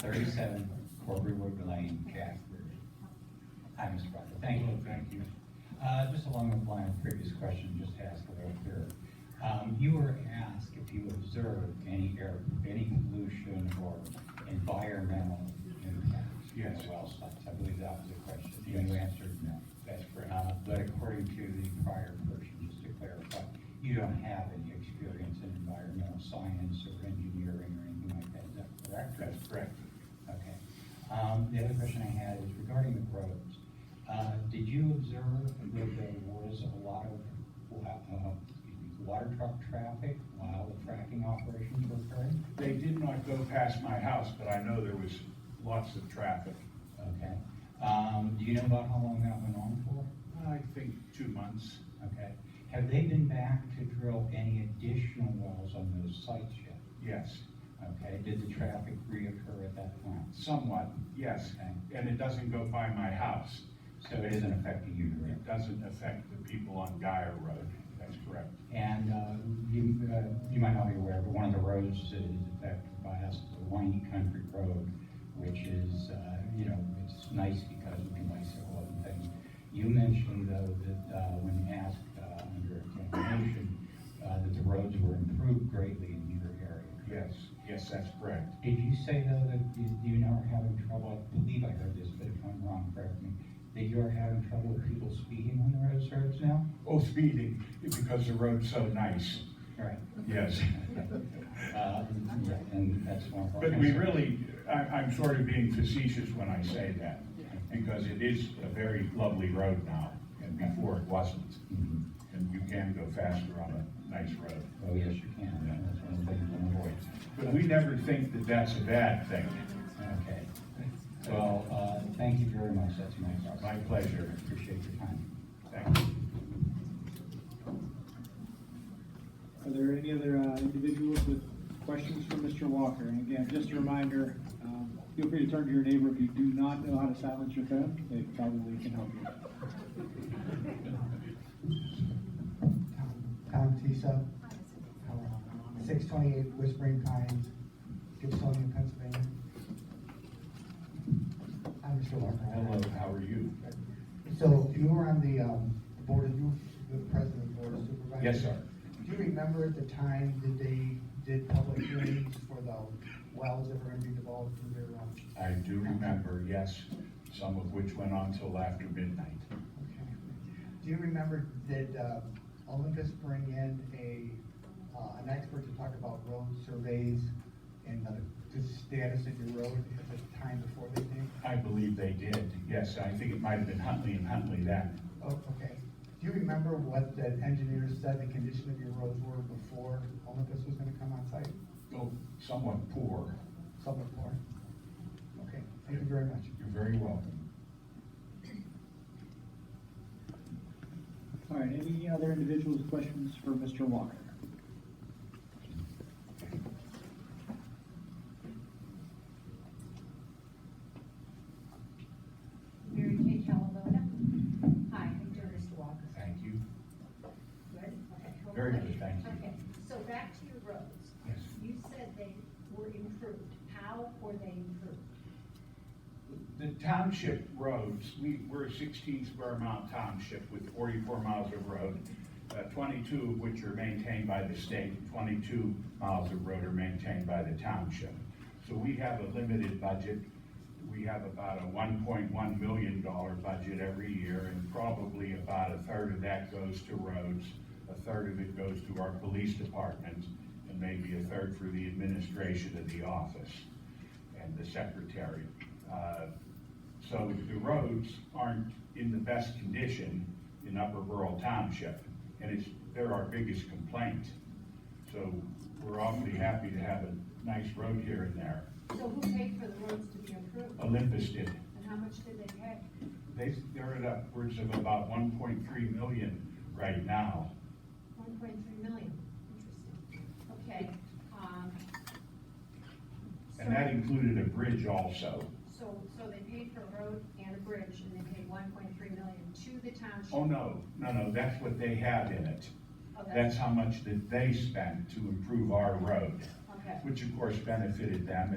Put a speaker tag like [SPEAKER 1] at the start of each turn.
[SPEAKER 1] thirty-seven Corberwood Lane, Jasper. Hi, Mr. Proctor, thank you. Thank you. Uh, just along the line of previous question, just to ask a little clearer. Um, you were asked if you observed any air, any pollution or environmental impact.
[SPEAKER 2] Yes.
[SPEAKER 1] at Well, sites. I believe that was the question, and you answered no. That's correct. Uh, but according to the prior person, just to clarify, you don't have any experience in environmental science or engineering or anything like that, is that correct? That's correct. Okay. Um, the other question I had is regarding the roads. Uh, did you observe that there was a lot of, wa- uh, excuse me, water truck traffic while the fracking operations were occurring?
[SPEAKER 2] They did not go past my house, but I know there was lots of traffic.
[SPEAKER 1] Okay. Um, do you know about how long that went on for?
[SPEAKER 2] I think two months.
[SPEAKER 1] Okay. Have they been back to drill any additional wells on those sites yet?
[SPEAKER 2] Yes,
[SPEAKER 1] Okay, did the traffic reoccur at that time?
[SPEAKER 2] somewhat, yes.
[SPEAKER 1] Okay.
[SPEAKER 2] And it doesn't go by my house.
[SPEAKER 1] So it isn't affecting you directly?
[SPEAKER 2] It doesn't affect the people on Guyer Road. That's correct.
[SPEAKER 1] And uh, you, uh, you might not be aware, but one of the roads that is affected by us is the Winey Country Road, which is, uh, you know, it's nice because we can bicycle and things. You mentioned though that uh, when asked uh, under examination, uh, that the roads were improved greatly in your area.
[SPEAKER 2] Yes, yes, that's correct.
[SPEAKER 1] Did you say though that you- you now are having trouble, I believe I heard this, but if I'm wrong, correct me, that you're having trouble with people speeding on the road surface now?
[SPEAKER 2] Oh, speeding, because the road's so nice.
[SPEAKER 1] Right.
[SPEAKER 2] Yes.
[SPEAKER 1] Uh, yeah, And that's one. of our
[SPEAKER 2] But we
[SPEAKER 1] concerns.
[SPEAKER 2] really, I, I'm sort of being facetious when I say that, because it is a very lovely road now, and before it wasn't.
[SPEAKER 1] Mhm.
[SPEAKER 2] And you can go faster on a nice road.
[SPEAKER 1] Oh, yes, you can. That's one of the things to avoid.
[SPEAKER 2] But we never think that that's a bad thing.
[SPEAKER 1] Okay. Well, uh, thank you very much. That's my question.
[SPEAKER 2] My pleasure.
[SPEAKER 1] Appreciate your time.
[SPEAKER 2] Thank you.
[SPEAKER 3] Are there any other uh, individuals with questions for Mr. Walker? And again, just a reminder, um, feel free to turn to your neighbor if you do not know how to silence your phone. They probably can help you.
[SPEAKER 4] Tom Tisa, Um, six twenty-eight Whispering Pines, Gibsonia, Pennsylvania. I'm Mr. Walker.
[SPEAKER 2] Hello, how are you?
[SPEAKER 4] So you were on the, um, the board of, you were the president of the board of supervisors?
[SPEAKER 2] Yes, sir.
[SPEAKER 4] Do you remember at the time that they did public hearings for the wells that were gonna be developed for their, um,
[SPEAKER 2] I do remember, yes, some of which went on till after midnight.
[SPEAKER 4] okay. Do you remember, did, uh, Olympus bring in a, uh, an expert to talk about road surveys and the, the status of your road at the time before they did?
[SPEAKER 2] I believe they did, yes, I think it might have been Huntley and Huntley that.
[SPEAKER 4] Oh, okay. Do you remember what the engineer said the condition of your roads were before Olympus was gonna come on site?
[SPEAKER 2] Oh, somewhat poor.
[SPEAKER 4] Somewhat more? Okay, thank you very much.
[SPEAKER 2] You're very welcome.
[SPEAKER 3] All right, any other individuals with questions for Mr. Walker?
[SPEAKER 5] Mary Kay Calavona. Hi, I'm doing Mr. Walker.
[SPEAKER 2] Thank you.
[SPEAKER 5] Good? Okay. how
[SPEAKER 2] Very
[SPEAKER 5] are
[SPEAKER 2] good, thank you.
[SPEAKER 5] Okay, so back to your roads.
[SPEAKER 2] Yes.
[SPEAKER 5] You said they were improved. How were they improved?
[SPEAKER 2] The township roads, we, we're a sixteen square mile township with forty-four miles of road, uh, twenty-two of which are maintained by the state, twenty-two miles of road are maintained by the township. So we have a limited budget. We have about a one point one million dollar budget every year, and probably about a third of that goes to roads, a third of it goes to our police department, and maybe a third for the administration of the office and the secretary. Uh, So the roads aren't in the best condition in Upper Borough Township, and it's, they're our biggest complaint. So we're awfully happy to have a nice road here and there.
[SPEAKER 5] So who paid for the roads to be improved?
[SPEAKER 2] Olympus did,
[SPEAKER 5] And how much did they pay?
[SPEAKER 2] they, they're at upwards of about one point three million right now.
[SPEAKER 5] One point three million. Interesting. Okay, um.
[SPEAKER 2] And that
[SPEAKER 5] so-
[SPEAKER 2] included a bridge also.
[SPEAKER 5] So, so they paid for a road and a bridge and they paid one point three million to the township?
[SPEAKER 2] Oh, no, no, no, that's what they had in it.
[SPEAKER 5] Oh,
[SPEAKER 2] That's
[SPEAKER 5] that's,
[SPEAKER 2] how much that they spent to improve our road,
[SPEAKER 5] okay.
[SPEAKER 2] which of course benefited them